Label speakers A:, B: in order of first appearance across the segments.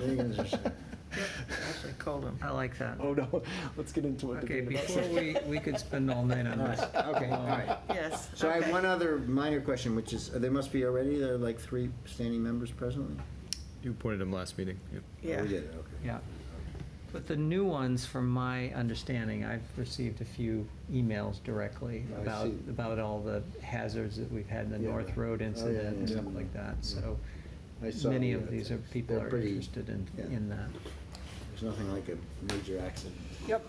A: vegans are saying.
B: Actually, Colin, I like that.
C: Oh, no, let's get into it.
B: Okay,
C: Didn't mean to
B: before
C: upset.
B: we, we could spend all night on
A: All
B: this.
A: right, okay, all right.
B: Yes.
A: So I have
B: okay.
A: one other minor question, which is, there must be already, there are like three standing members presently?
D: You appointed him last meeting. Yep.
B: Yeah.
A: We did, okay.
B: Yeah. But the new ones, from my understanding, I've received a few emails directly
A: I
B: about,
A: see.
B: about all the hazards that we've had, the
A: Yeah.
B: North Road
A: Oh, yeah,
B: incident and
A: yeah,
B: stuff
A: yeah.
B: like that, so
A: I saw
B: many
A: the
B: of
A: other
B: these are,
A: things.
B: people
A: They're
B: are
A: pretty-
B: interested in,
A: yeah.
B: in that.
A: There's nothing like a major accident.
B: Yep,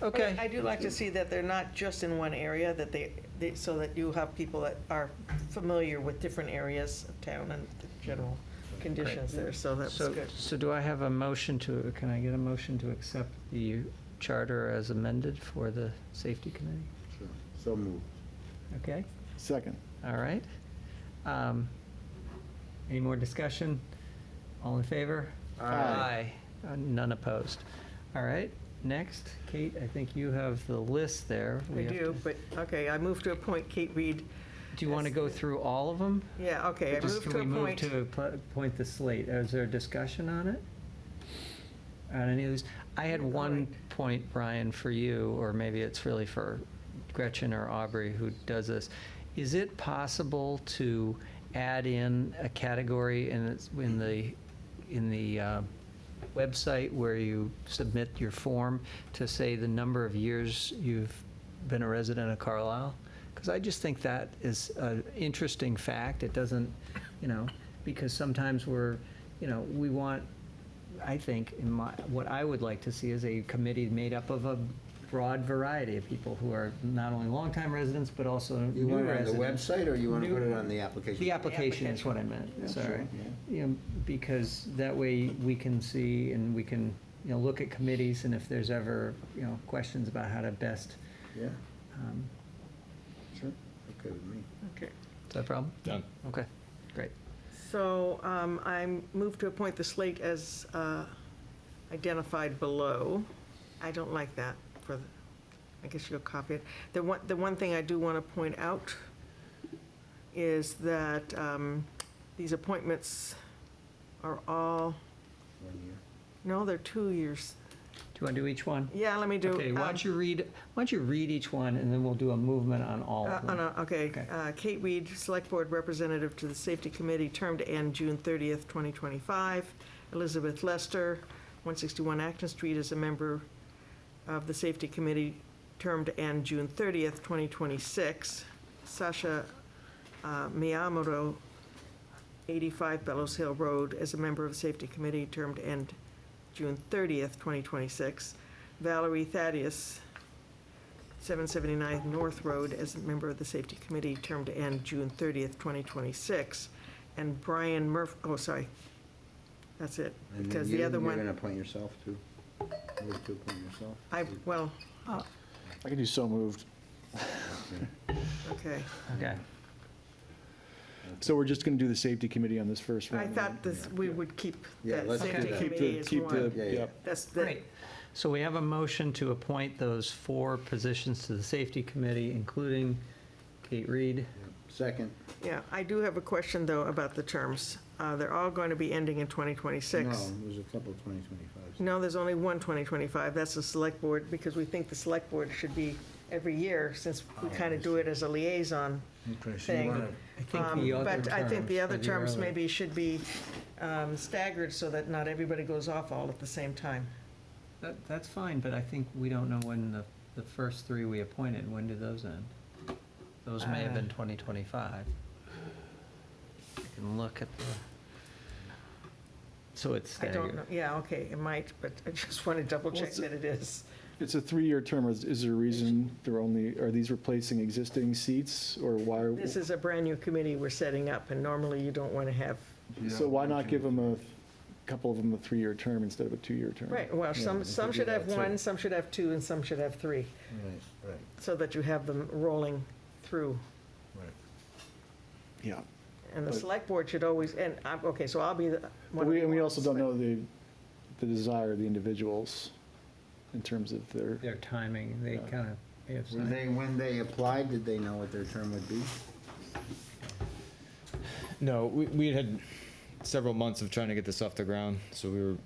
E: But
B: okay.
E: I do like to see that they're not just in one area, that they, they- so that you have people that are familiar with different areas of town and the general conditions there, so that's
B: So,
E: good.
B: so do I have a motion to, can I get a motion to accept the charter as amended for the safety committee?
A: Sure. So moved.
B: Okay,
C: Second.
B: all right. Um, Any more discussion? All in favor?
A: Aye.
B: Uh, None opposed. All right, next, Kate, I think you have the list there.
E: I
B: We have
E: do,
B: to-
E: but, okay, I move to appoint Kate Reed,
B: Do you want to go through all of them?
E: yeah, okay, I
B: Just
E: move
B: can
E: to
B: we move
E: appoint.
B: to pl- appoint the slate? Is there a discussion on it? On any of these? I had
E: Yeah,
B: one
E: alright.
B: point, Brian, for you, or maybe it's really for Gretchen or Aubrey who does this. Is it possible to add in a category in, its- in the, in the uh, website where you submit your form to say the number of years you've been a resident of Carlisle? Because I just think that is an interesting fact. It doesn't, you know, because sometimes we're, you know, we want, I think, in my, what I would like to see is a committee made up of a broad variety of people who are not only longtime residents, but also
A: You
B: new
A: want it on
B: residents.
A: the website, or you want to
B: New-
A: put it on the application?
B: The application is what I
A: Yeah,
B: meant,
A: sure,
B: sorry.
A: yeah.
B: You know, because that way we can see and we can, you know, look at committees and if there's ever, you know, questions about how to best,
A: Yeah,
B: um,
A: sure, okay with me.
E: Okay.
B: is that a problem?
D: Done.
B: Okay, great.
E: So um, I move to appoint the slate as uh, identified below. I don't like that for, the- I guess you'll copy it. The one, the one thing I do want to point out is that um, these appointments are all,
A: One year.
E: no, they're two years.
B: Do you want to do each one?
E: Yeah, let me do.
B: Okay, why
E: um,
B: don't you read, why don't you read each one, and then we'll do a movement on all
E: Uh,
B: of
E: on
B: them?
E: a- Okay,
B: Okay.
E: uh, Kate Weed, Select Board Representative to the Safety Committee, term to end June 30th, 2025. Elizabeth Lester, 161 Acton Street, is a member of the Safety Committee, term to end June 30th, 2026. Sasha uh, Miyamoto, 85 Bellows Hill Road, is a member of the Safety Committee, term to end June 30th, 2026. Valerie Thaddeus, 779 North Road as a member of the Safety Committee, term to end June 30th, 2026. And Brian Murphy, oh, sorry, that's it,
A: And then
E: because
A: you-
E: the other
A: You're
E: one,
A: going to appoint yourself, too? Move to appoint yourself?
E: I, well,
C: I can do so moved.
E: okay.
B: Okay,
C: So we're just going to do the safety committee on this first one.
E: I
C: right?
E: thought this, we would keep
A: Yeah,
E: that
A: let's do
E: Safety
A: that.
C: Keep
E: Committee
C: the,
E: as
C: keep the,
E: one.
A: Yeah, yeah.
C: yep.
E: That's the,
B: great. So we have a motion to appoint those four positions to the Safety Committee, including Kate Reed.
A: Second.
E: yeah, I do have a question, though, about the terms. Uh, They're all going to be ending in 2026.
A: No, there's a couple 2025s.
E: No, there's only one 2025, that's the select board, because we think the select board should be every year, since we
A: Oh,
E: kind
A: I
E: of do it as a liaison.
A: Okay, so you
E: Thing.
A: wanna-
B: I think
E: Um,
B: the other
E: But I think the
B: terms
E: other
B: are
E: terms
B: early.
E: maybe should be um, staggered, so that not everybody goes off all at the same time.
B: That, that's fine, but I think we don't know when the, the first three we appointed, when did those end? Those may have been
E: Uh.
B: 2025. I can look at the, so it's
E: I don't
B: staggered.
E: know, yeah, okay, it might, but I just want to double
C: Well,
E: check
C: it's-
E: that it is.
C: It's a three-year term. Is is there a reason they're only, are these replacing existing seats or why? are-
E: This is a brand-new committee we're setting up, and normally you don't want to have,
C: So why not give them a, couple of them a three-year term instead of a two-year term?
E: right, well,
A: we
E: some,
A: could
E: some
A: do
E: should
A: that
E: have
A: too.
E: one, some should have two, and some should have three,
A: Right, right,
E: so that you have them rolling through.
A: right.
C: Yeah.
E: And the
C: But-
E: select board should always, and, I'm- okay, so I'll be the.
C: But
E: one
C: we,
E: of
C: and we
E: the
C: also don't
E: ones,
C: know the, the desire of the individuals in terms of their,
B: Their timing, they
C: Yeah.
B: kind of, they have
A: Were
B: some.
A: they, when they applied, did they know what their term would be?
D: No, we, we had several months of trying to get this off the ground, so we were